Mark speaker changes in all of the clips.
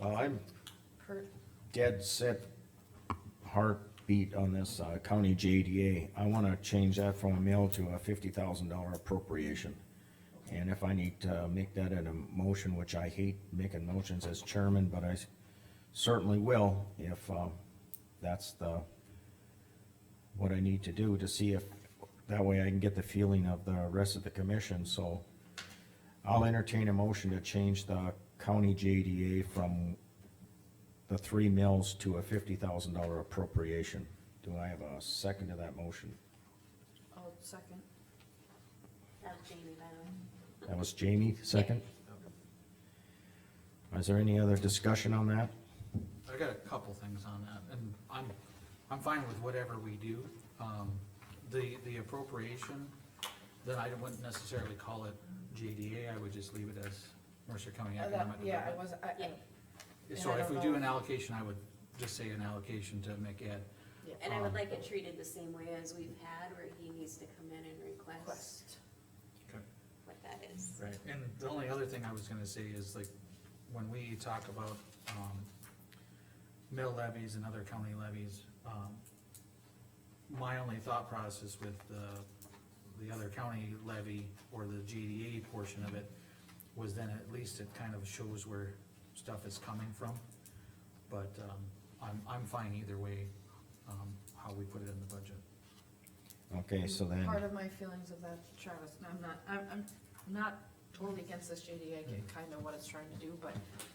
Speaker 1: Well, I'm
Speaker 2: per,
Speaker 1: dead set heartbeat on this, uh, county JDA. I wanna change that from a mill to a fifty thousand dollar appropriation. And if I need to make that in a motion, which I hate making motions as chairman, but I s- certainly will if, um, that's the, what I need to do to see if, that way I can get the feeling of the rest of the commission, so I'll entertain a motion to change the county JDA from the three mills to a fifty thousand dollar appropriation. Do I have a second to that motion?
Speaker 2: oh, second.
Speaker 3: That's Jamie, by the way.
Speaker 1: That was Jamie, second? Is there any other discussion on that?
Speaker 4: I got a couple things on that, and I'm, I'm fine with whatever we do. Um, the, the appropriation, then I wouldn't necessarily call it JDA, I would just leave it as Mercer County
Speaker 2: Uh, that-
Speaker 4: Economic
Speaker 2: Yeah, I
Speaker 4: Development.
Speaker 2: was, I, I,
Speaker 3: Yeah.
Speaker 2: and
Speaker 4: So
Speaker 2: I
Speaker 4: if
Speaker 2: don't
Speaker 4: we do
Speaker 2: know.
Speaker 4: an allocation, I would just say an allocation to make it,
Speaker 3: And I would like it treated the same way as we've had, where he needs to come in and request
Speaker 2: quest.
Speaker 3: what that is.
Speaker 4: Right, and the only other thing I was gonna say is like, when we talk about, um, mill levies and other county levies, um, my only thought process with the, the other county levy or the GDA portion of it was then at least it kind of shows where stuff is coming from. But, um, I'm, I'm fine either way, um, how we put it in the budget.
Speaker 1: Okay, so
Speaker 2: Part
Speaker 1: then,
Speaker 2: of my feelings of that, Travis, and I'm not, I'm, I'm not totally against this JDA, I get
Speaker 1: Mm-hmm.
Speaker 2: kind of what it's trying to do, but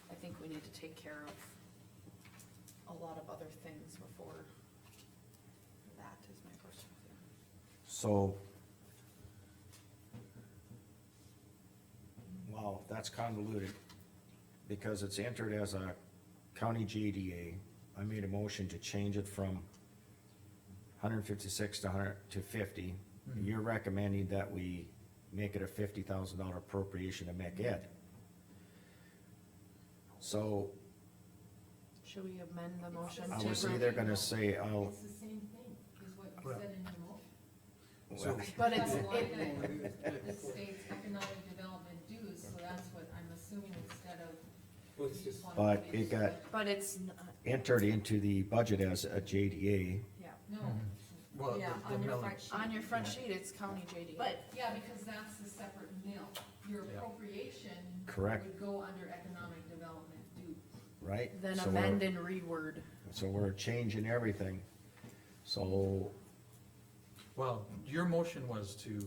Speaker 2: I think we need to take care of a lot of other things before that is my personal feeling.
Speaker 1: so. Wow, that's convoluted, because it's entered as a county JDA. I made a motion to change it from hundred fifty-six to hundred, to fifty. You're recommending that we make it a fifty thousand dollar appropriation to make it. So
Speaker 2: Should we amend the motion
Speaker 1: I
Speaker 2: to-
Speaker 1: was either gonna say, oh, I'll,
Speaker 5: It's the same thing, is what you
Speaker 4: Well-
Speaker 5: said in your motion.
Speaker 4: So-
Speaker 2: But it's,
Speaker 5: That's
Speaker 2: it,
Speaker 5: line item, It states economic development dues, so that's what I'm assuming instead of.
Speaker 1: But it got-
Speaker 2: but it's, not-
Speaker 1: entered into the budget as a JDA.
Speaker 2: yeah,
Speaker 5: No,
Speaker 4: Well,
Speaker 5: yeah,
Speaker 4: the- the
Speaker 5: on your
Speaker 4: mill-
Speaker 5: front sheet.
Speaker 2: on your front sheet, it's county JDA.
Speaker 3: But
Speaker 5: Yeah, because that's the separate mill, your
Speaker 4: Yeah.
Speaker 5: appropriation.
Speaker 1: Correct.
Speaker 5: Would go under economic development due.
Speaker 1: right?
Speaker 2: Then
Speaker 1: So we're-
Speaker 2: amend and reword.
Speaker 1: So we're changing everything. So,
Speaker 4: Well, your motion was to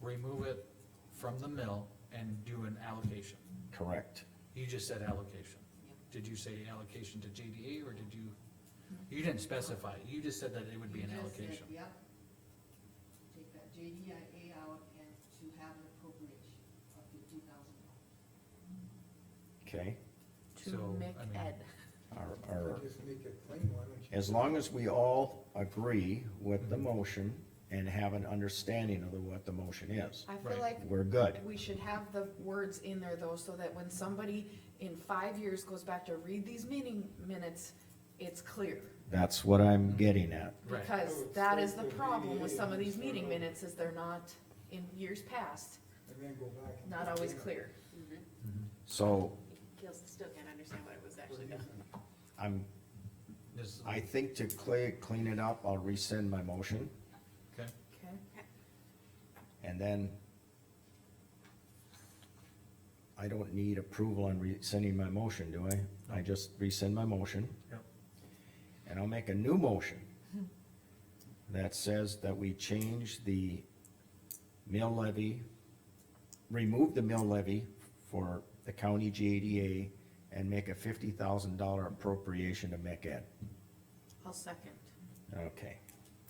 Speaker 4: remove it from the mill and do an allocation.
Speaker 1: correct.
Speaker 4: You just said allocation. Did you say allocation to JDA or did you, you didn't specify. You just said that it would be
Speaker 5: You
Speaker 4: an
Speaker 5: just said,
Speaker 4: allocation.
Speaker 5: Yep. Take that JDIA out and to have an appropriation of fifty thousand dollars.
Speaker 1: Okay,
Speaker 2: to
Speaker 4: So,
Speaker 2: make
Speaker 4: I mean-
Speaker 2: Ed.
Speaker 1: our, our,
Speaker 6: Just make it plain, why don't you?
Speaker 1: as long as we all agree with the motion and have an understanding of the- what the motion is,
Speaker 2: I feel
Speaker 4: Right.
Speaker 2: like
Speaker 1: we're good.
Speaker 2: we should have the words in there though, so that when somebody in five years goes back to read these meeting minutes, it's clear.
Speaker 1: That's what I'm getting at.
Speaker 4: Right.
Speaker 2: Because that is the problem with some of these meeting minutes, is they're not, in years past,
Speaker 6: And then go back. and-
Speaker 2: not always clear.
Speaker 4: Mm-hmm.
Speaker 1: So
Speaker 3: Gil still can't understand what it was actually done.
Speaker 1: I'm,
Speaker 4: Just-
Speaker 1: I think to clear, clean it up, I'll rescind my motion
Speaker 4: okay.
Speaker 2: Okay.
Speaker 1: and then I don't need approval on rescinding my motion, do I? I just rescind my motion.
Speaker 4: Yep.
Speaker 1: And I'll make a new motion that says that we change the mill levy, remove the mill levy for the county JDA and make a fifty thousand dollar appropriation to MECAD.
Speaker 2: I'll second.
Speaker 1: Okay,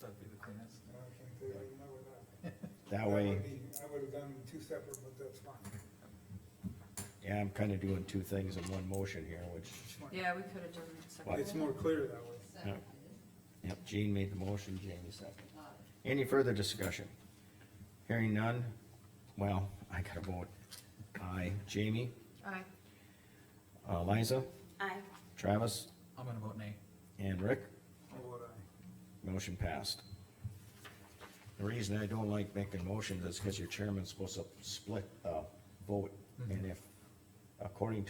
Speaker 4: That'd be the cleanest.
Speaker 6: I can't tell you no with that.
Speaker 1: that way,
Speaker 6: would be- I would've done two separate, but that's fine.
Speaker 1: yeah, I'm kinda doing two things in one motion here, which,
Speaker 2: Yeah, we could have done it
Speaker 6: It's more clear that way.
Speaker 5: Second is,
Speaker 1: yep, Gene made the motion, Jamie seconded.
Speaker 5: got it.
Speaker 1: Any further discussion? Hearing none, well, I gotta vote. Aye, Jamie,
Speaker 2: Aye.
Speaker 1: uh, Liza,
Speaker 3: Aye.
Speaker 1: Travis,
Speaker 4: I'm gonna vote nay.
Speaker 1: and Rick,
Speaker 6: How would I?
Speaker 1: motion passed. The reason I don't like making uh, motions is because your chairman's supposed to split the vote, and if, according to